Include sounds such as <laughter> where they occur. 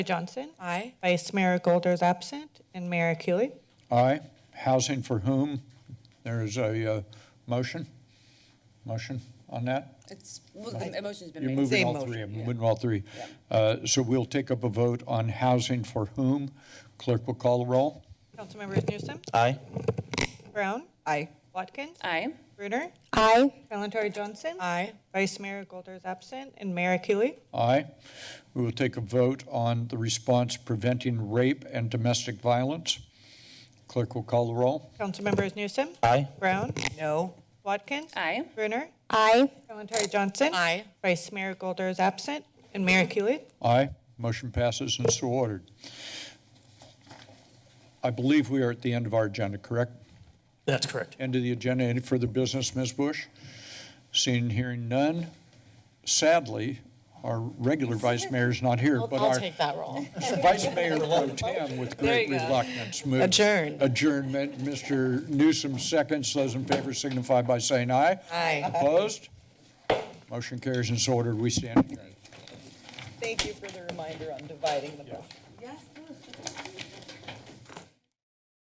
Johnson. Aye. Vice Mayor Golder is absent, and Mayor Cooley. Aye. Housing for whom? There is a uh, motion? Motion on that? It's, well, the motion's been You're made. moving Same all motion. three, I'm moving all three. Uh, So we'll take up a vote on housing for whom. Clerk will call the roll. Councilmembers Newsom, Aye. Brown, Aye. Watkins, Aye. Brunner, Aye. Kalentari Johnson. Aye. Vice Mayor Golder is absent, and Mayor Cooley. Aye. We will take a vote on the response preventing rape and domestic violence. Clerk will call the roll. Councilmembers Newsom, Aye. Brown, No. Watkins. Aye. Brunner, Aye. Kalentari Johnson. Aye. Vice Mayor Golder is absent, and Mayor Cooley. Aye. Motion passes and so ordered. I believe we are at the end of our agenda, correct? That's correct. End of the agenda. Any further business, Ms. Bush? Seeing and hearing none. Sadly, our regular vice mayor is not here, but our that role. <laughs> vice mayor pro tem with great you go. reluctance moved. Adjourn. Adjournment. Mr. Newsom seconds. Those in favor signify by saying aye. Aye. Opposed? Motion carries and so ordered. We stand adjourned. Thank you for the reminder on dividing the motion.